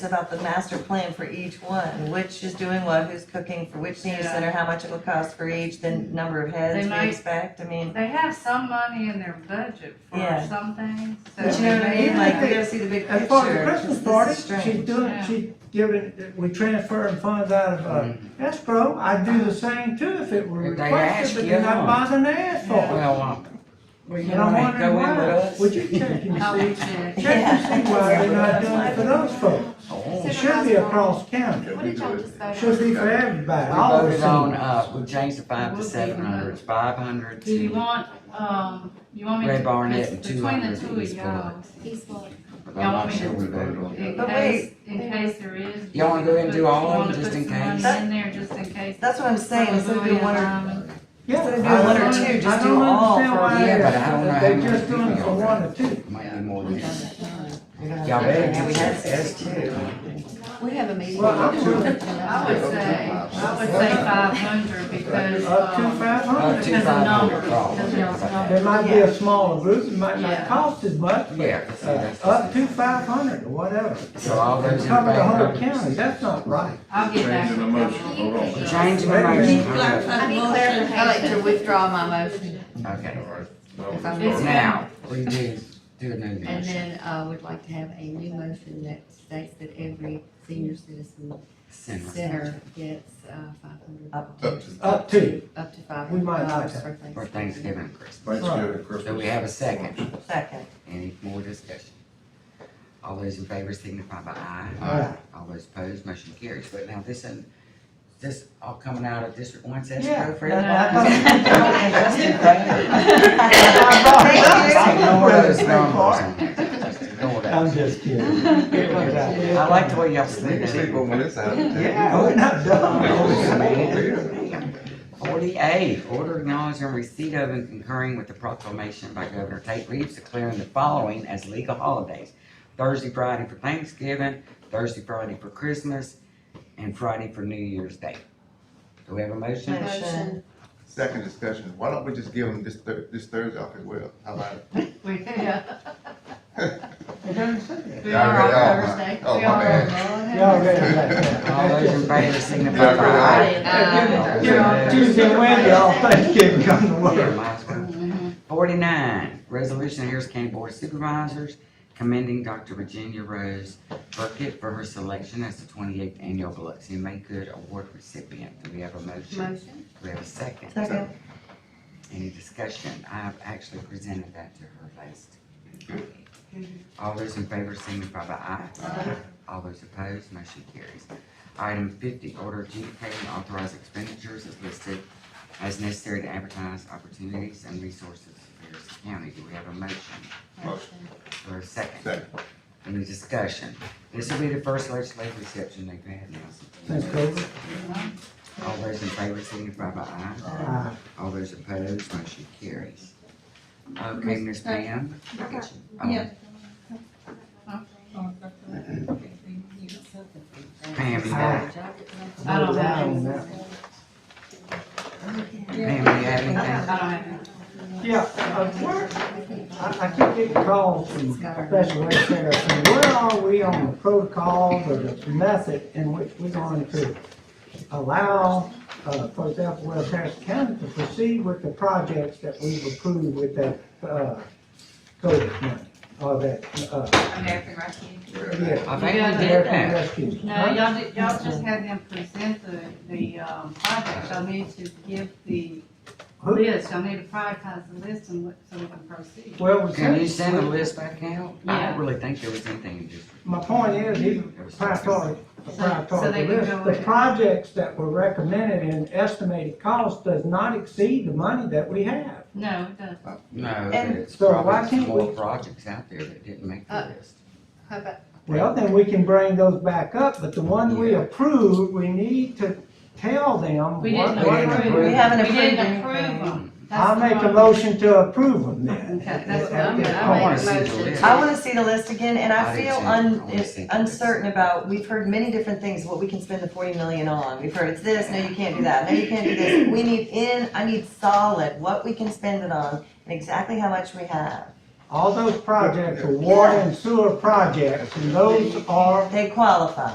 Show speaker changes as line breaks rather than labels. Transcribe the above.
about the master plan for each one, which is doing what, who's cooking for which senior
Yeah.
center, how much it will cost for each, the number of
They
heads we
might-
expect, I mean.
They have some money in their budget for
Yeah.
some things, so.
But you know what I mean,
maybe-
like, we gotta see the big
As far as the
picture,
Christmas
this
party,
is strange.
she's doing,
Yeah.
she's giving, we transferring funds out of uh, escrow, I'd do the same too if it were
If Mm-hmm. they
requested, but
ask
you're
you.
not bothering to ask for it.
Well, um, well,
And
you know,
I'm
ain't
wondering
go in with
why,
us.
would you check and
I would
see,
check.
check and see why they're not doing it for those folks?
Oh,
It should be across county,
What did y'all just vote on?
it should be for everybody, all
We
the
voted on,
seniors.
uh, we changed the five to seven hundred, it's five hundred
Do you
to,
want, um, you want me to?
Ray Barnett and
between the
200
two of
is
y'all,
East Floyd.
but
y'all
I'm
want
not
me
sure
to-
we voted on it.
In
But
case, in case there is.
Y'all wanna go ahead and do all of
You
them,
wanna
just in
put some
case?
money in there, just in case.
That's what I'm saying, instead of doing one or,
Yeah,
instead of
I
doing one or
don't-
two,
I
just
don't
do all
understand
for
why
a
Yeah,
year.
but I don't know how
They're
many
just doing it
people
for
y'all
one
got.
or two,
Might be more than that.
You know,
Y'all better
yeah, we
get
have-
that S too.
We have a meeting.
Well, I'm
I
really-
would say, I would say five hundred because,
up to
um,
five
Up
hundred.
to
Because of
five hundred
numbers, because of
There
dollars.
numbers.
might be a smaller group, it might
Yeah.
not cost as much, but
Yeah, see,
uh,
that's-
up to five hundred or whatever.
So all those in
Cover the whole
favor?
county, that's not right.
I'll get back.
Changing
with
the motion. Hold on.
y'all.
Change the motion.
I need clarification. I'd like to withdraw my motion,
Okay,
if I'm
It's-
now, we do, do a new
And
motion.
then, uh, would like to have a new motion that states that every senior citizen
Center.
center gets, uh, five hundred,
Up to,
Up to
Up to,
up to five
We
hundred
might like
dollars
that.
for
For
Thanksgiving.
Thanksgiving and Christmas.
Thanksgiving,
So we
Christmas.
have a second.
second,
Any more discussion? All those in favor signify by aye.
Aye.
All those opposed, motion carries. But now this, and this all coming out of District One
Yeah,
escrow for
that-
everybody? Just in favor. Ignore those numbers on there. Just ignore
I'm
those.
just kidding.
I like the way y'all
We
split
can
it.
keep on with this out of town.
Yeah, we're not done.
Forty-eight, order acknowledging receipt of and concurring with the proclamation by Governor Tate Reeves declaring the following as legal holidays. Thursday, Friday for Thanksgiving, Thursday, Friday for Christmas, and Friday for New Year's Day. Do we have a motion?
motion,
Second discussion, why don't we just give them this Thur- this Thursday off as well? How about it?
We, yeah,
It doesn't say that.
we
Yeah, I
are
read
on
all mine.
Thursday.
Oh,
We
my
are on
Y'all
Monday.
ready to let that.
All those in favor signify by
Yeah,
aye.
yeah. Uh,
Give them Tuesday, and Wednesday, all Thanksgiving come to
Yeah,
work.
might as well. Forty-nine, resolution of Harris County Board of Supervisors commending Dr. Virginia Rose Burkett for her selection as the twenty-eighth annual Biloxi Make Good Award recipient. Do we have a motion?
Motion,
Do we have a second?
second,
Any discussion? I've actually presented that to her last. meeting. All those in favor signify by aye.
Aye.
All those opposed, motion carries. Item fifty, order adjudicating authorized expenditures as listed as necessary to advertise opportunities and resources for Harrison County. Do we have a motion
Motion.
or a second?
Second.
Any discussion? This will be the first legislative reception they've had now.
Since COVID.
All those in favor signify by aye.
Uh,
All those opposed, motion carries. Okay, Ms. Pam? Oh, Pam, you got,
I don't have,
Pam, you have
I
anything?
don't have.
Yeah, uh, where, I, I keep getting calls from Special Ed Center, saying, where are we on the protocols or the method in which we're going to allow, uh, for example, West Harrison County to proceed with the projects that we've approved with that, uh, COVID money, or that, uh,
American Rescue.
yeah.
I think we did
American
that.
Rescue.
No, y'all did, y'all just had them present the, the, um, projects, y'all need to give the
Who-
list, y'all need to prioritize the list and what, so we can proceed.
Well, we
Can you
said,
send the list back out? I don't really think there was anything just.
my point is, even prioritize,
So they can
prioritize the list.
go
The
in.
projects that were recommended and estimated cost does not exceed the money that we have.
No, it doesn't.
No,
And
there's
so why
probably
can't
more
we-
projects out there that didn't make the
Uh,
list.
how about,
Well, then we can bring those back up, but the one we approved, we need to tell them.
We
what-
didn't
what-
approve.
we haven't
We
approved
didn't approve
anything.
them. That's
I'll
the
make a
problem.
motion to approve them then.
Okay, that's what
At
I'm
this
gonna-
I
point.
wanna
make a
see the
motion.
list.
I wanna see the list again, and I
I do
feel
too. I
un,
wanna see the
uncertain about, we've heard many different things, what we can spend the forty million on. We've heard it's this, no, you can't do that, no, you can't do this. We need in, I need solid, what we can spend it on, and exactly how much we have.
all those projects are water and sewer projects, and those are
They qualify.